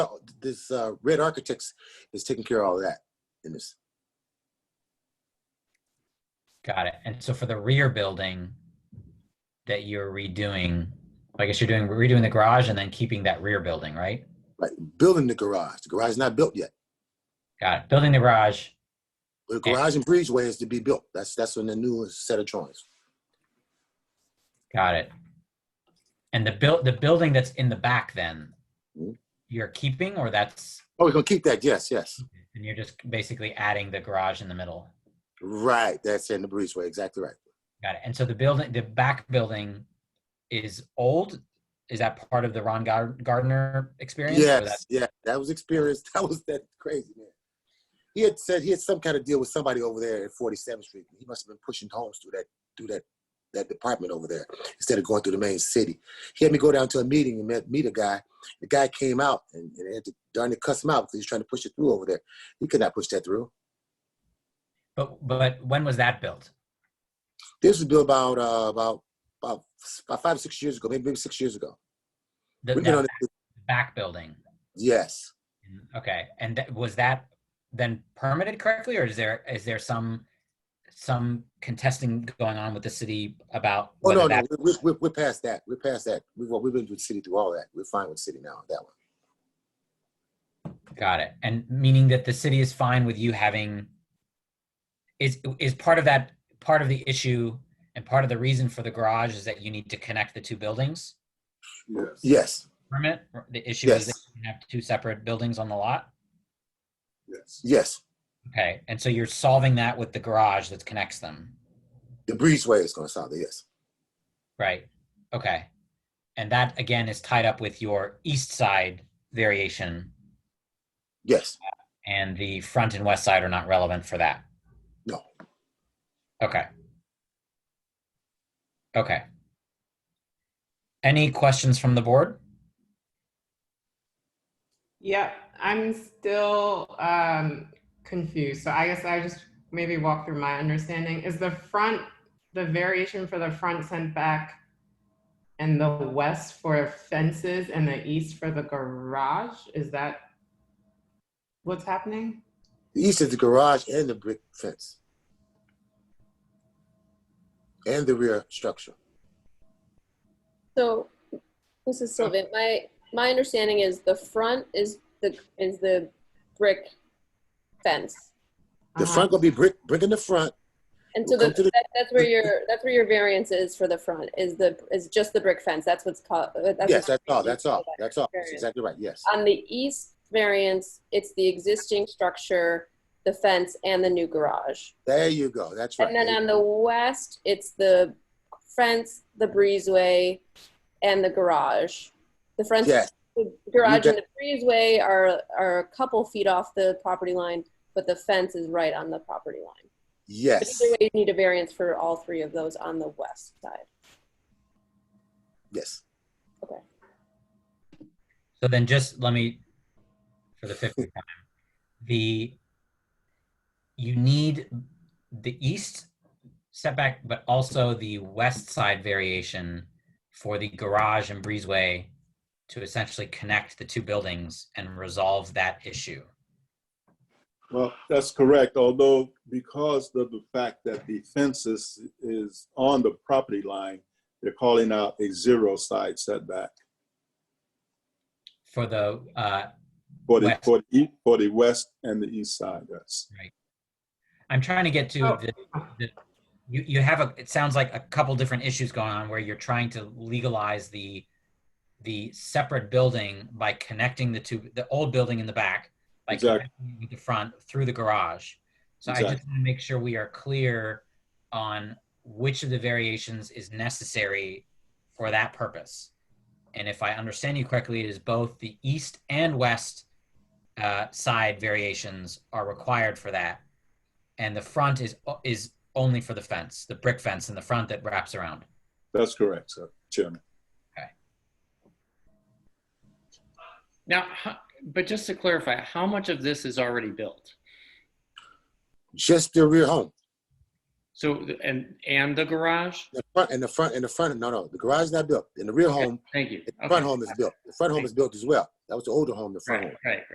this uh, Red Architects is taking care of all of that in this. Got it. And so for the rear building that you're redoing, I guess you're doing redoing the garage and then keeping that rear building, right? Right, building the garage. The garage is not built yet. Got it. Building the garage. The garage and breezeway is to be built. That's that's when the new set of drawings. Got it. And the build the building that's in the back then, Mhm. you're keeping or that's Oh, we're gonna keep that. Yes, yes. and you're just basically adding the garage in the middle. Right, that's in the breezeway. Exactly right. Got it. And so the building the back building is old. Is that part of the Ron Gar- Gardner experience? or Yes, that's- yeah, that was experience. That was that crazy man. He had said he had some kind of deal with somebody over there at 47th Street. He must have been pushing homes through that through that that department over there instead of going through the main city. He had me go down to a meeting and met meet a guy. The guy came out and, and they had to darn it cuss him out because he was trying to push it through over there. He could not push that through. But but when was that built? This was built about uh, about about about five or six years ago, maybe maybe six years ago. The, We've been that on it. back building. Yes. Mm-hmm. Okay, and th- was that then permitted correctly, or is there, is there some, some contesting going on with the city about Oh, whether no, no, that? we're, we're, we're past that. We're past that. We've, we've been with the city through all that. We're fine with the city now on that one. Got it, and meaning that the city is fine with you having, is, is part of that, part of the issue and part of the reason for the garage is that you need to connect the two buildings? Yes. Yes, Permit, Or the issue is that Yes. you have two separate buildings on the lot? Yes. yes. Okay, and so you're solving that with the garage that connects them? The breezeway is going to solve it, yes. Right. Okay. And that again is tied up with your east side variation Yes, and the front and west side are not relevant for that. no. Okay. Okay. Any questions from the board? Yep, I'm still um, confused. So I guess I just maybe walk through my understanding. Is the front, the variation for the front sent back and the west for fences and the east for the garage? Is that what's happening? The east is the garage and the brick fence. And the rear structure. So, Mrs. Sylvan, my, my understanding is the front is the, is the brick fence. The Uh-huh. front going to be brick, brick in the front. And so Come the, to the- that, that's where your, that's where your variance is for the front, is the, is just the brick fence, that's what's called. Yes, that's all, that's all, that's all. That's exactly right, yes. On the east variance, it's the existing structure, the fence, and the new garage. There you go, that's right. And then um, on the west, it's the fence, the breezeway, and the garage. The front, Yes. the garage You and the breezeway are, are a couple feet off the property line, but the fence is right on the property line. But Yes, either way, you need a variance for all three of those on the west side. yes. So then just let me, for the fifth time, the, you need the east setback, but also the west side variation for the garage and breezeway to essentially connect the two buildings and resolve that issue. Well, that's correct, although because of the fact that the fence is, is on the property line, they're calling out a zero side setback For the, uh, for the, West. for the, e- for the west and the east side, yes. I'm trying to get to Oh. the, the you, you have a it sounds like a couple different issues going on where you're trying to legalize the the separate building by connecting the two the old building in the back by Exactly. connecting with the front through the garage. So I just Exactly. want to make sure we are clear on which of the variations is necessary for that purpose. And if I understand you correctly, it is both the east and west uh, side variations are required for that and the front is is only for the fence, the brick fence in the front that wraps around. That's correct, sir, Chairman. Now, ho- but just to clarify, how much of this is already built? Just the rear home. So, th- and, and the garage? The front, and the front, and the front, no, no, the garage is not built. In the rear home, Thank you. The Okay. front home is built. The front home is built as well. That was the older home, the front home. Right, right.